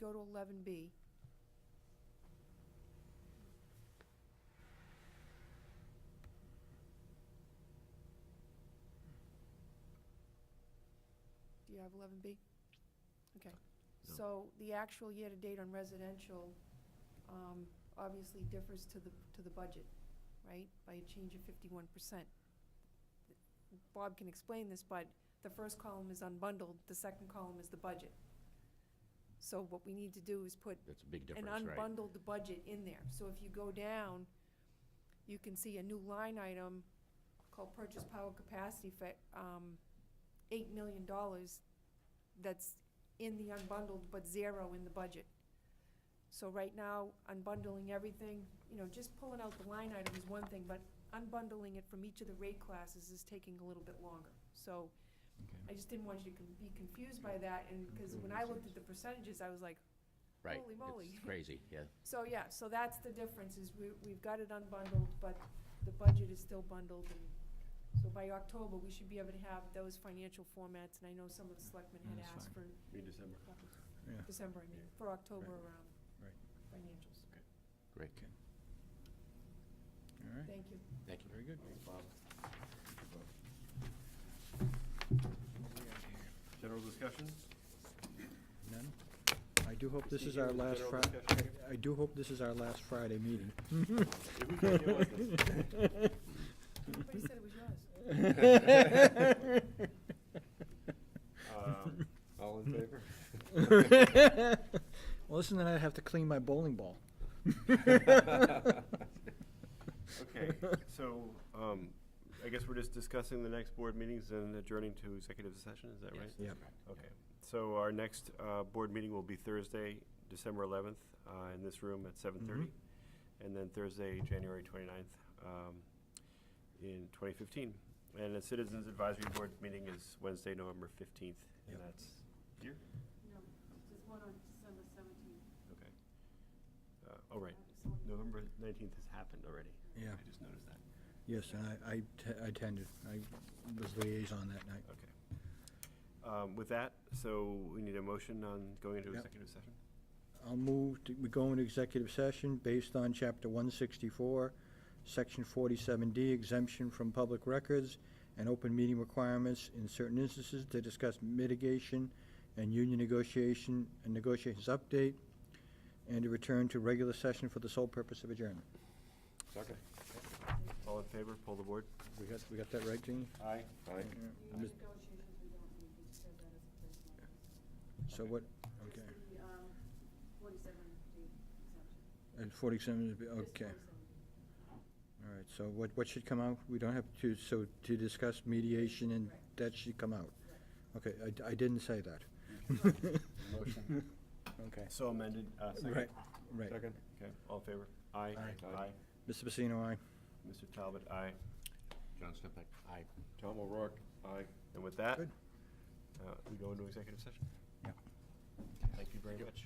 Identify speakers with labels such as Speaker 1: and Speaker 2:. Speaker 1: go to eleven B. Do you have eleven B? Okay,
Speaker 2: No.
Speaker 1: so the actual year-to-date on residential, um, obviously differs to the, to the budget, right? By a change of fifty-one percent. Bob can explain this, but the first column is unbundled, the second column is the budget. So what we need to do is put
Speaker 2: That's a big
Speaker 1: an
Speaker 2: difference, right?
Speaker 1: unbundled budget in there. So if you go down, you can see a new line item called purchase power capacity for, um, eight million dollars that's in the unbundled, but zero in the budget. So right now, unbundling everything, you know, just pulling out the line item is one thing, but unbundling it from each of the rate classes is taking a little bit longer. So I just didn't want you to con- be confused by that, and, because when I looked at the percentages, I was like,
Speaker 2: Right.
Speaker 1: Holy moly.
Speaker 2: It's crazy, yeah.
Speaker 1: so, yeah, so that's the difference, is we, we've got it unbundled, but the budget is still bundled, and so by October, we should be able to have those financial formats, and I know some of the selectmen had
Speaker 3: Yeah, that's
Speaker 1: asked for. December.
Speaker 3: Yeah.
Speaker 1: December, I mean, for October
Speaker 3: Right.
Speaker 1: around.
Speaker 3: Right.
Speaker 1: Financials,
Speaker 2: Great.
Speaker 3: All right,
Speaker 1: thank you.
Speaker 2: Thank you.
Speaker 3: very good.
Speaker 4: General discussion?
Speaker 3: None? I do hope this
Speaker 4: Proceed
Speaker 3: is our
Speaker 4: to the
Speaker 3: last
Speaker 4: general
Speaker 3: Fri-
Speaker 4: discussion.
Speaker 3: I- I do hope this is our last Friday meeting.
Speaker 4: If we can deal with this.
Speaker 1: Everybody said it was yours.
Speaker 4: Um, All in favor?
Speaker 3: Well, listen, then I'd have to clean my bowling ball.
Speaker 4: Okay, so, um, I guess we're just discussing the next board meetings and adjourning to executive session, is that right?
Speaker 3: Yep.
Speaker 4: Okay, so our next, uh, board meeting will be Thursday, December eleventh, uh, in this room at seven thirty.
Speaker 3: Mm-hmm.
Speaker 4: And then Thursday, January twenty-ninth, um, in twenty fifteen. And the Citizens Advisory Board meeting is Wednesday, November fifteenth, and
Speaker 3: Yep.
Speaker 4: that's here?
Speaker 5: No, there's one on December seventeenth.
Speaker 4: Okay. Uh, oh, right. November nineteenth has happened already.
Speaker 3: Yeah.
Speaker 4: I just noticed that.
Speaker 3: Yes, and I, I t- I attended. I was liaison that night.
Speaker 4: Okay. Um, with that, so we need a motion on going into
Speaker 3: Yep.
Speaker 4: executive session?
Speaker 3: I'll move, to- we go into executive session based on Chapter 164, Section 47D exemption from public records and open meeting requirements in certain instances to discuss mitigation and union negotiation and negotiations update, and to return to regular session for the sole purpose of adjournment.
Speaker 4: Okay. All in favor, pull the board?
Speaker 3: We got, we got that right, Jeannie?
Speaker 4: Aye. Aye.
Speaker 3: Mis-
Speaker 5: Negotiations we don't need, we just have that as a placeholder.
Speaker 3: So what,
Speaker 5: Just
Speaker 3: okay,
Speaker 5: the, um, forty-seven D exemption.
Speaker 3: and 47 would be,
Speaker 5: Just
Speaker 3: okay,
Speaker 5: 47.
Speaker 3: all right, so what, what should come out? We don't have to, so to discuss mediation and
Speaker 5: Right.
Speaker 3: that should come out?
Speaker 5: Right.
Speaker 3: Okay, I d- I, didn't say that.
Speaker 4: Motion.
Speaker 3: Okay.
Speaker 4: So amended, uh, second?
Speaker 3: Right, right.
Speaker 4: Second, okay, all in favor? Aye.
Speaker 3: Aye. Mr. Pacino, aye.
Speaker 4: Mr. Talbot, aye.
Speaker 2: John Stupak, aye.
Speaker 4: Tom O'Rourke, aye. And with that,
Speaker 3: Good.
Speaker 4: uh, we go into executive session?
Speaker 3: Yeah.
Speaker 4: Thank you very much.